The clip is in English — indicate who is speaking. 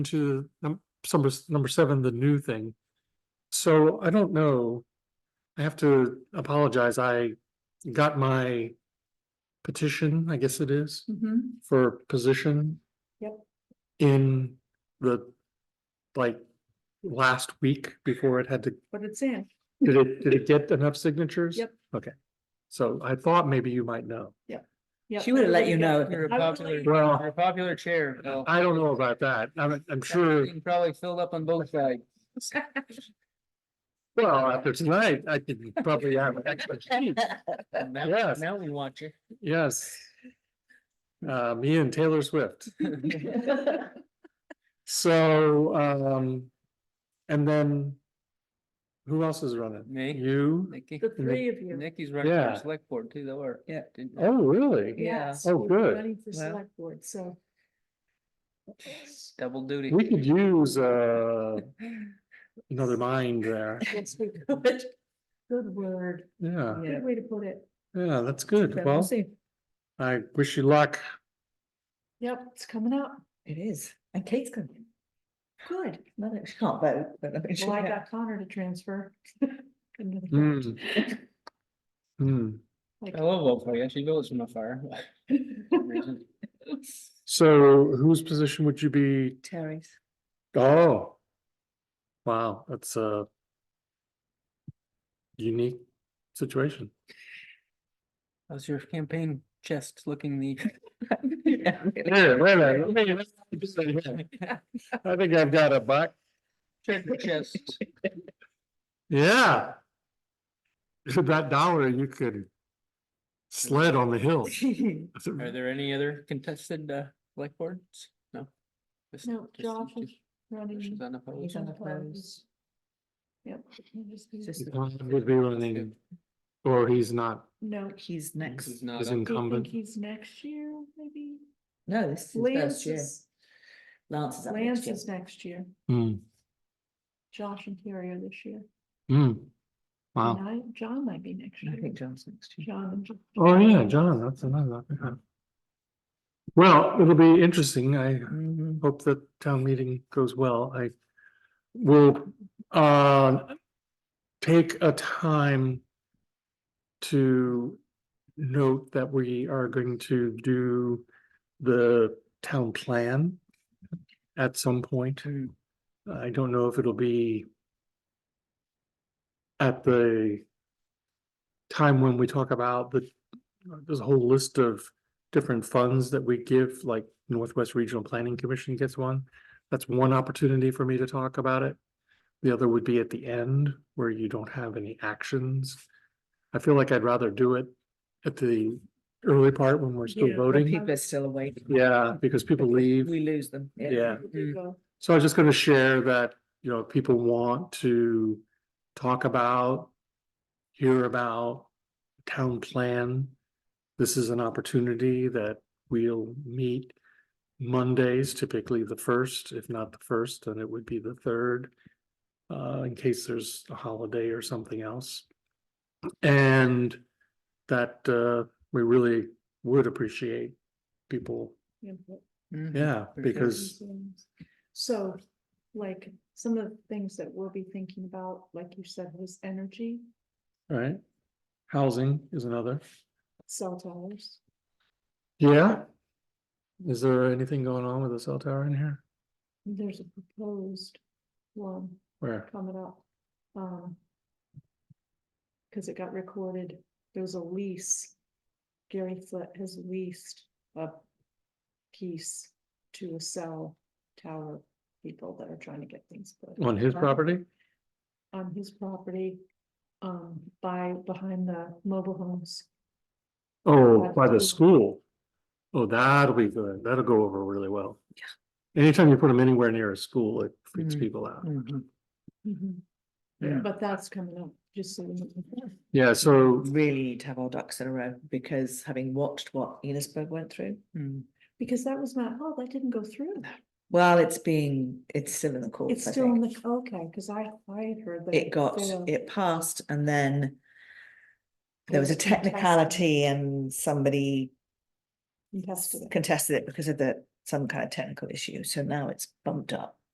Speaker 1: to num- number, s- number seven, the new thing. So I don't know. I have to apologize. I got my petition, I guess it is,
Speaker 2: Mm-hmm.
Speaker 3: Mhm.
Speaker 1: for position.
Speaker 3: Yep.
Speaker 1: In the, like, last week before it had to,
Speaker 3: But it's in.
Speaker 1: did it, did it get enough signatures?
Speaker 3: Yep.
Speaker 1: Okay. So I thought maybe you might know.
Speaker 3: Yep.
Speaker 2: She would have let you know.
Speaker 4: You're a
Speaker 3: I would
Speaker 4: popular,
Speaker 3: like-
Speaker 1: Well-
Speaker 4: you're a popular chair. Bill.
Speaker 1: I don't know about that. I'm, I'm sure,
Speaker 4: You Probably filled up on both sides.
Speaker 1: well, after tonight, I could probably have an extra sheet.
Speaker 4: And now-
Speaker 1: Yes.
Speaker 4: Now we want you.
Speaker 1: Yes. Uh, me and Taylor Swift. So, um, and then who else is running?
Speaker 4: Me,
Speaker 1: You?
Speaker 4: Nikki,
Speaker 3: The three of you.
Speaker 4: Nikki's running for
Speaker 1: Yeah.
Speaker 4: select board too, though, or?
Speaker 2: Yeah.
Speaker 4: didn't-
Speaker 1: Oh, really?
Speaker 3: Yes,
Speaker 1: Oh,
Speaker 3: you're
Speaker 1: good.
Speaker 3: Running for
Speaker 2: Well.
Speaker 3: select board, so.
Speaker 4: Double duty.
Speaker 1: We could use, uh, another mind there.
Speaker 3: Yes, we could. Good word,
Speaker 1: Yeah,
Speaker 3: good way to put it.
Speaker 1: yeah, that's good.
Speaker 2: Yeah, we'll
Speaker 1: Well,
Speaker 2: see.
Speaker 1: I wish you luck.
Speaker 3: Yep, it's coming up.
Speaker 2: It is, and Kate's coming.
Speaker 3: Good.
Speaker 2: Not that she can't vote, Oh, but I think she
Speaker 3: Well, I
Speaker 2: can.
Speaker 3: got Connor to transfer. Couldn't have-
Speaker 1: Hmm. Hmm.
Speaker 3: Like-
Speaker 4: I love vote for you. She votes from afar.
Speaker 1: So whose position would you be?
Speaker 2: Terry's.
Speaker 1: Oh. Wow, that's a unique situation.
Speaker 4: How's your campaign chest looking the?
Speaker 2: Yeah, really.
Speaker 1: Yeah, wait a minute, let me- let's keep this thing here. I think I've got a buck.
Speaker 4: Check the chest.
Speaker 1: Yeah. For that dollar, you could sled on the hill.
Speaker 4: Are there any other contested, uh, select boards? No? Just-
Speaker 3: No,
Speaker 4: just-
Speaker 3: Josh is
Speaker 4: just-
Speaker 3: running.
Speaker 4: She's unopposed.
Speaker 2: He's on the
Speaker 3: Unopposed. Yep. he'll just be-
Speaker 2: Just-
Speaker 1: Todd Would be running, or he's not,
Speaker 3: No.
Speaker 2: He's
Speaker 4: This
Speaker 2: next.
Speaker 4: is not
Speaker 1: he's
Speaker 4: up.
Speaker 3: Do you think
Speaker 1: incumbent.
Speaker 3: he's next year, maybe?
Speaker 2: No, this is his
Speaker 3: Lance
Speaker 2: first year.
Speaker 3: is,
Speaker 2: Lance is up next
Speaker 3: Lance
Speaker 2: year.
Speaker 3: is next year.
Speaker 1: Hmm,
Speaker 3: Josh and Terry are this year.
Speaker 1: hmm.
Speaker 3: And
Speaker 1: Wow.
Speaker 3: I, John might be next
Speaker 2: I
Speaker 3: year.
Speaker 2: think John's next year.
Speaker 3: John and. John.
Speaker 1: Oh, yeah, John, that's another. yeah. Well, it'll be interesting. I
Speaker 2: Mhm.
Speaker 1: hope the town meeting goes well. I will uh take a time to note that we are going to do the town plan at some point. I don't know if it'll be at the time when we talk about the, there's a whole list of different funds that we give, like Northwest Regional Planning Commission gets one. That's one opportunity for me to talk about it. The other would be at the end where you don't have any actions. I feel like I'd rather do it at the early part when we're still
Speaker 3: Yeah.
Speaker 2: Well,
Speaker 1: voting.
Speaker 2: People are still awake.
Speaker 1: Yeah, because people leave.
Speaker 2: We lose them. Mm.
Speaker 1: Yeah.
Speaker 3: There you go.
Speaker 1: So I was just gonna share that, you know, if people want to talk about, hear about town plan. This is an opportunity that we'll meet Mondays, typically the first, if not the first, then it would be the third. Uh, in case there's a holiday or something else. And that, uh, we really would appreciate people,
Speaker 3: Yeah, but-
Speaker 4: Mhm.
Speaker 1: yeah,
Speaker 4: sure.
Speaker 1: because
Speaker 3: Things. So, like, some of the things that we'll be thinking about, like you said, was energy,
Speaker 1: Right. Housing is another.
Speaker 3: cell towers.
Speaker 1: Yeah. Is there anything going on with the cell tower in here?
Speaker 3: There's a proposed one
Speaker 1: Where?
Speaker 3: coming up. Um. Cause it got recorded, there was a lease. Gary Flett has leased a piece to a cell tower people that are trying to get things. put
Speaker 1: On his
Speaker 3: up.
Speaker 1: property?
Speaker 3: on his property, um, by, behind the mobile homes.
Speaker 1: Oh,
Speaker 3: By
Speaker 1: by
Speaker 3: the
Speaker 1: the school. Oh, that'll be good. That'll go over really well. Yeah. Anytime you put them anywhere near a school, it freaks
Speaker 4: Mhm.
Speaker 1: people out.
Speaker 4: Mhm.
Speaker 2: Mm-hmm.
Speaker 1: Yeah.
Speaker 3: But that's coming up, just so you know.
Speaker 1: Yeah, so,
Speaker 2: Really need to have our ducks in a row because having watched what Enosburg went through,
Speaker 4: Mhm.
Speaker 3: Because that was not, oh, that didn't go through.
Speaker 2: well, it's being, it's still in the courts.
Speaker 3: It's
Speaker 2: I
Speaker 3: still in
Speaker 2: think.
Speaker 3: the, okay, because I, I had heard that.
Speaker 2: It got,
Speaker 3: failed.
Speaker 2: it passed and then
Speaker 3: It
Speaker 2: there was a
Speaker 3: contested-
Speaker 2: technicality and somebody
Speaker 3: contested it.
Speaker 2: contested it because of the some kind of technical issue, so now it's bumped up.